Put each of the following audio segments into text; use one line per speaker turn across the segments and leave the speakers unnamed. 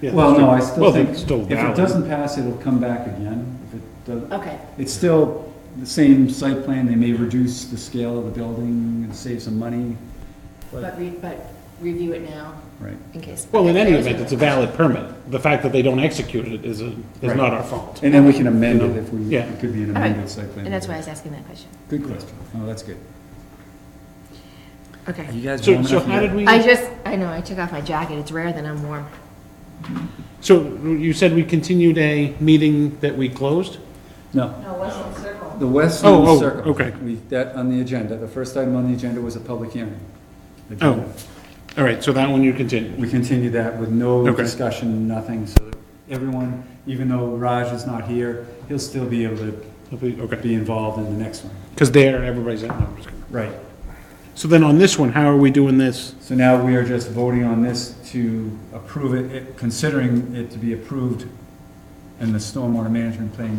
Yeah,
Well, no, I
Well,
still
then
think,
it's
if
still
it
valid.
doesn't pass, it'll come back again. If it does,
Okay,
it's still the same site plan, they may reduce the scale of the building and save some money,
but re, but review it now
right?
in case.
Well, in any
Okay,
event, it's a
that was
valid permit. The fact that they don't execute it is, a- is
Right.
not our fault.
And then we can amend it if we,
Yeah.
it could be an
All right.
amended site
my-
plan.
And that's why I was asking that question.
Good question. Oh, that's good.
Okay.
You guys
So,
warm
so
enough
how did
yet?
we,
I just, I know, I took off my jacket. It's rare that I'm warm.
so you said we continued a meeting that we closed?
No,
No, Westland Circle.
the Westland
Oh, oh,
Circle.
okay.
We, that on the agenda, the first item on the agenda was a public hearing.
Oh, all right, so that one you continued.
We continued that with no
Okay.
discussion, nothing, so that everyone, even though Raj is not here, he'll still be able to
Okay,
be involved in the next one.
because there, everybody's at, no, I'm just kidding.
Right.
So then on this one, how are we doing this?
So now we are just voting on this to approve it- it, considering it to be approved in the stormwater management plan.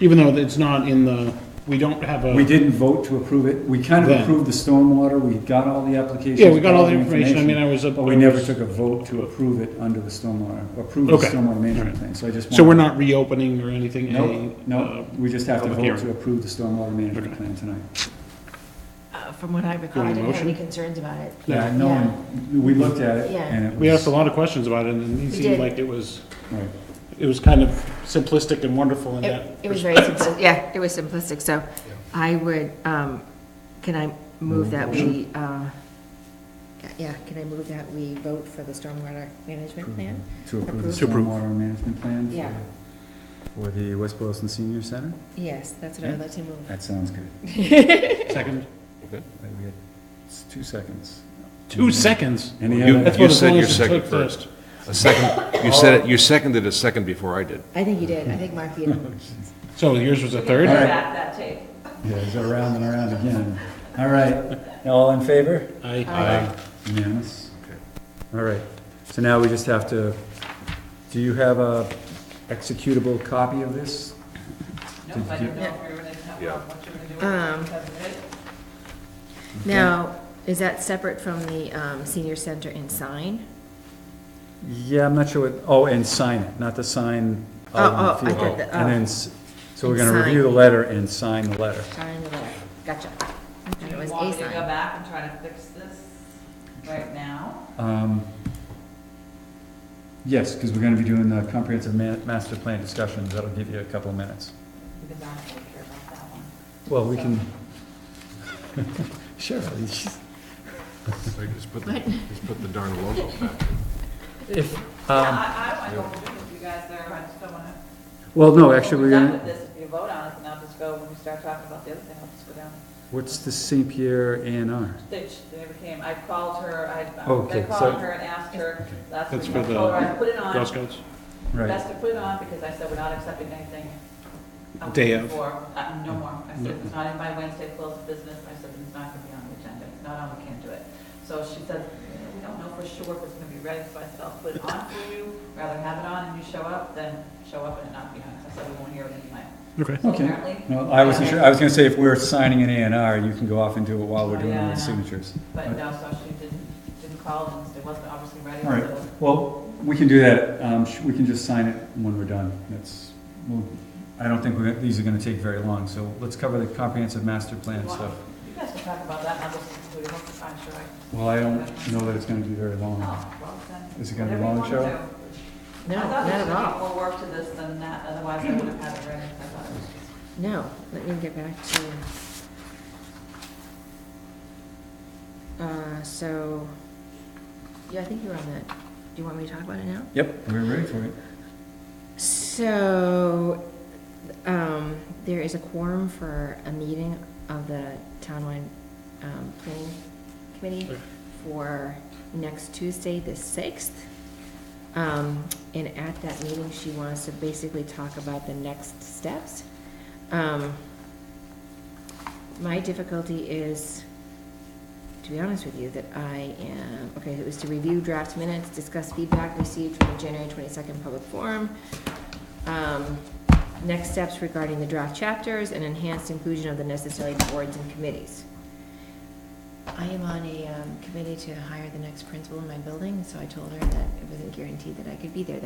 Even though it's not in the, we don't have
We
a,
didn't vote to approve it. We kind of
Then.
approved the stormwater. We got all the applications.
yeah, we got all the information. I mean, I was.
But we never took a vote to approve it under the stormwater, approve the
Okay.
stormwater
Alright.
management plan. So I just.
So we're
wanted-
not reopening or anything?
Nope,
a, uh,
nope. We just have to
public
vote to
hearing.
approve the stormwater management
Okay.
plan tonight.
Uh, From what I recall, I
Do you
didn't
want a
have any
motion?
concerns about it.
Yeah.
Yeah, no one, we looked at it
Yeah.
and it
uh, We asked a
was.
lot of questions about it and it seemed
did.
like it was,
right.
it was kind of simplistic and wonderful in that.
It it was very simplistic, yeah, it was simplistic, so I would, um, can I move that we, uh, yeah, can I move that we vote for the stormwater management plan?
To approve the
Approve. To
approve.
stormwater management plan? for-
Yeah.
For the West Boylston Senior Center?
Yes, that's what I would like to move.
That sounds good.
Second?
Wait, we had- It's two seconds.
Two seconds?
Mm-hmm. Any
You-
other-
that's
You
what as
said
long
your
as it
second
took
first. A second, you said it, you seconded a second before I did.
I think you did, I think Mark, you did.
So yours was a
Go
third?
right.
back that tape.
Yeah, it's around and around again. All right, all in favor?
Aye.
Unanimous.
Okay.
All right, so now we just have to, do you have a executable copy of this?
Nope, I
you-
don't know if you're gonna have,
Yeah.
what you're gonna do with
Um,
it. because of it.
Now, is that separate from the um, senior center and sign?
Yeah, I'm not sure what, oh, and sign it, not the sign
Oh,
out
oh,
in
I
the field.
thought that,
And then,
oh,
s- so we're gonna
And
review the
sign.
letter and sign the letter.
sign the letter, gotcha. I
Do
thought It
you
was
want
a
me to go
sign.
back and try to fix this right now?
Um, Yes, because we're gonna be doing the comprehensive ma- master plan discussions, that'll give you a couple of minutes.
Because I don't really care about that one.
Well, we can. Sure, she's-
So you Just put, just put the darn logo back.
if,
Yeah,
um,
I, I don't want to do it with you guys there, I just don't wanna.
well, no, actually, we're
done with
gonna,
this, if you vote on it, then I'll just go, when we start talking about the other thing, I'll just go down.
what's the St. Pierre A and R?
They, sh- they never came, I called her, I,
Okay,
I
so-
called her and asked her last
That's
week,
for
I
the
told her I put it on.
Girl Scouts?
Right,
Best to put it on because I said we're not accepting anything. up
Day of.
before, uh, no more. I said, if it's not in by Wednesday, close the business. I said, it's not gonna be on the agenda. It's not on, we can't do it. So she said, we don't know for sure if it's gonna be ready, so I said, I'll put it on for you. Rather have it on and you show up than show up and it not be on. So I said, we won't hear it anyway.
Okay.
So
Okay.
apparently-
well, I wasn't sure, I was gonna say, if we're signing an A and R, you can go off and do it while we're
Oh,
doing
yeah,
all
I
the
know.
signatures.
But no, so she didn't, didn't call and it wasn't obviously ready,
All right,
so.
well, we can do that, um, sh- we can just sign it when we're done, that's, we'll- I don't think we're- these are gonna take very long, so let's cover the comprehensive master plan stuff.
You guys can talk about that and I'll just, we hope to find sure. I-
Well, I don't know that it's gonna be very long.
Oh, well, then.
Is it gonna be
whatever you
long,
wanna
Cheryl?
do.
No,
I thought
not
there
at
should be
all.
More work to this than that, otherwise I would have had it ready. I thought it was just-
No, let me get back to. Uh, so, yeah, I think you're on that. Do you want me to talk about it now?
Yep, we're ready for it.
So, um, there is a quorum for a meeting of the townwide, um, planning committee for next Tuesday, the sixth. Um, and at that meeting, she wants to basically talk about the next steps. Um, my difficulty is, to be honest with you, that I am, okay, it was to review draft minutes, discuss feedback received from the January twenty-second public forum, um, next steps regarding the draft chapters and enhanced inclusion of the necessary boards and committees. I am on a um, committee to hire the next principal in my building, so I told her that it wasn't guaranteed that I could be there